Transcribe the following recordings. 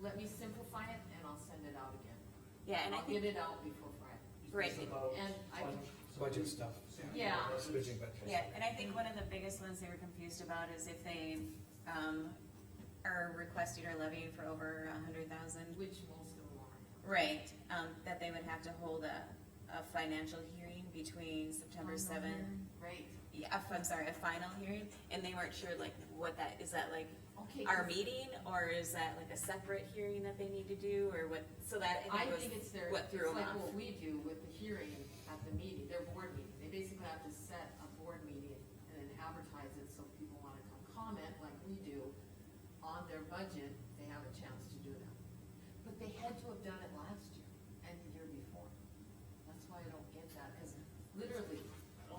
let me simplify it and I'll send it out again. Yeah, and I I'll get think, it out before Friday. Right. It's about And I can- budget. Budget stuff. Yeah. That's budget, but- yeah, and I think one of the biggest ones they were confused about is if they, um, are requesting or levying for over a hundred thousand. Which most of them are. Right, um, that they would have to hold a, a financial hearing between September seventh. Right, Yeah, uh, I'm sorry, a final hearing, and they weren't sure like what that, is that like okay. our meeting, or is that like a separate hearing that they need to do, or what, so that I I think was. think it's their, what it's threw 'em like off. what we do with the hearing at the meeting, their board meeting. They basically have to set a board meeting and then advertise it so people wanna come comment like we do on their budget, they have a chance to do that. But they had to have done it last year and the year before. That's why I don't get that, cause literally.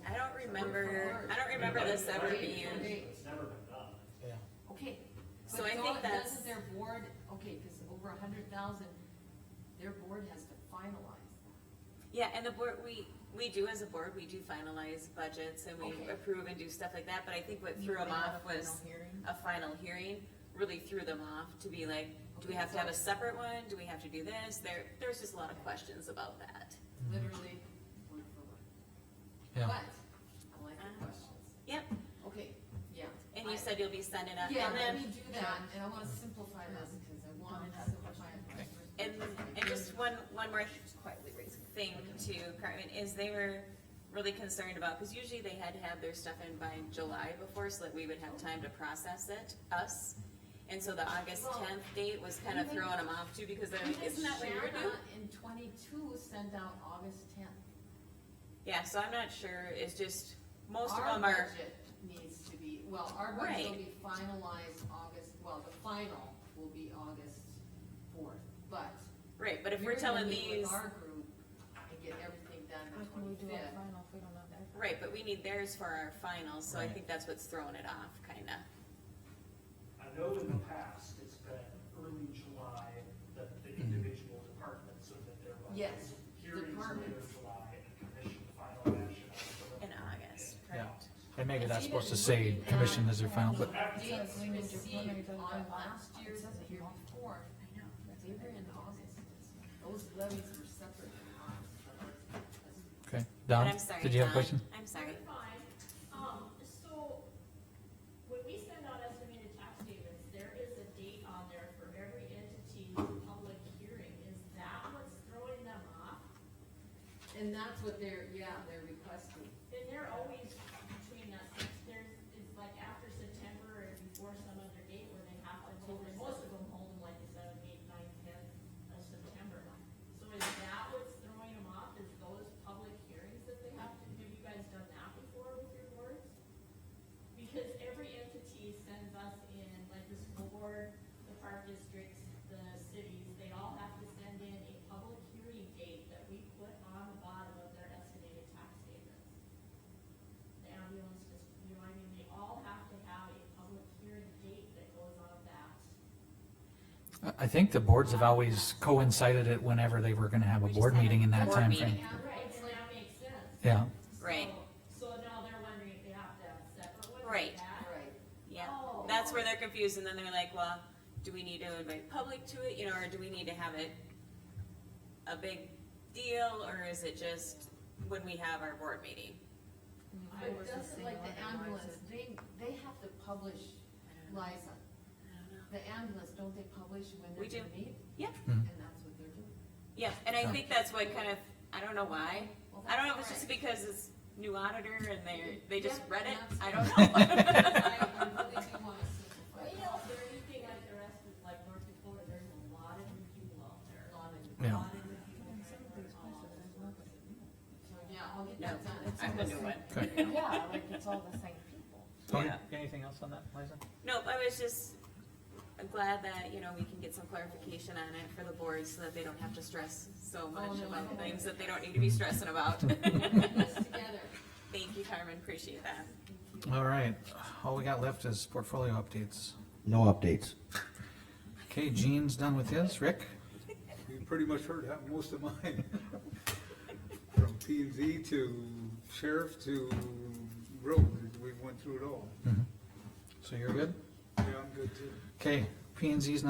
I don't remember, I don't Word remember this for ever word. being, It's never been done. Yeah. Okay. So but I don't- think that's- Doesn't their board, okay, cause over a hundred thousand, their board has to finalize that. yeah, and the board, we, we do as a board, we do finalize budgets and we Okay. approve and do stuff like that, but I think what threw them They have off a final was hearing? a final hearing, really threw them off to be like, do we Okay, have to have a so- separate one, do we have to do this, there, there's just a lot of questions about that. Literally, word for word. Yeah. But, I like the Ah. questions. Yep, Okay, yeah. and you I- said you'll be sending up, Yeah, and let me then, do that, and I wanna simplify this, cause I wanna simplify it. and, and just one, one more Quietly raising. thing to Cartman is they were really concerned about, because usually they had to have their stuff in by July before, so that we would have time to process it, us. And so the August Well, tenth date was kind of even- throwing them off too, because they're like, isn't that what you're doing? In twenty-two sent out August tenth. Yeah, so I'm not sure, it's just, most of them are, Our budget needs to be, well, our budget will Right. be finalized August, well, the final will be August fourth, but. right, but if you're we're gonna telling meet with these, Our group and get everything done How the can we do our twenty-fifth. final if we don't have that? right, but we need theirs for our finals, so I Right. think that's what's throwing it off, kinda. I know in the past, it's been early July that the individual departments so that their budgets. Yes, Hearings later departments. July and commission final action. on In it. August, Yeah. correct? And maybe It's that's even supposed to say looking at- commission is their final, but After that, Dates received on last year's and the year before, I know. they were in August. Those levies were separate in August. Okay, But Don, I'm sorry, did you have Don, a question? I'm sorry. That's Fine, um, so, when we send out estimated tax statements, there is a date on there for every entity's public hearing, is that what's throwing them off? And that's what they're, yeah, they're requesting. And they're always between us, It's- there's, it's like after September and before some other date where they have to hold, and most of them hold them like the seventh, eighth, ninth, tenth of September. So is that what's throwing them off, is those public hearings that they have to, have you guys done that before with your boards? Because every entity sends us in, like the school board, the park districts, the cities, they all have to send in a public hearing date that we put on the bottom of their estimated tax statements. The ambulance just, you know, I mean, they all have to have a public hearing date that goes on that. I- I think the boards have always coincided it whenever they were gonna have a We just board had a meeting in that board time meeting. frame. And Right, it's and like, that makes sense. Yeah, Right. So so now they're wondering if they have to have separate ones. like Right. that. right. Yeah, Oh. that's where they're confused, and then they're like, well, do we need to invite public to it, you know, or do we need to have it a big deal, or is it just when we have our board meeting? But doesn't like the ambulance, they, they have to publish, Liza, the ambulance, don't they publish when We they're do. gonna meet? Yeah, And that's what they're doing. yeah, and I think that's what kind of, I don't know why, Well, I don't know if that's it's just all right. because it's new auditor and they, they just Yeah, read it, that's- I don't know. I I really do wanna Well, simplify you it. know, if they're anything like the rest of, like North Dakota, there's a lot of new people out there. A lot of- Yeah. lot of new people And some trying of to these learn all places, this. there's nobody new. So, yeah, I'll get No, that done. It's I'm almost gonna do it. okay. Yeah, like it's all the same people. Tony, Yeah. anything else on that, Liza? Nope, I was just glad that, you know, we can get some clarification on it for the board so that they don't have to stress so Oh, much no, I about know. things that they don't need to be stressing about. this together. Thank you, Carmen, appreciate that. All right, all we got left is portfolio updates. No updates. Okay, Gene's done with his, Rick? You pretty much heard that, most of mine. From P and Z to sheriff to road, we went through it all. So you're good? Yeah, I'm good too. Okay, P and Z's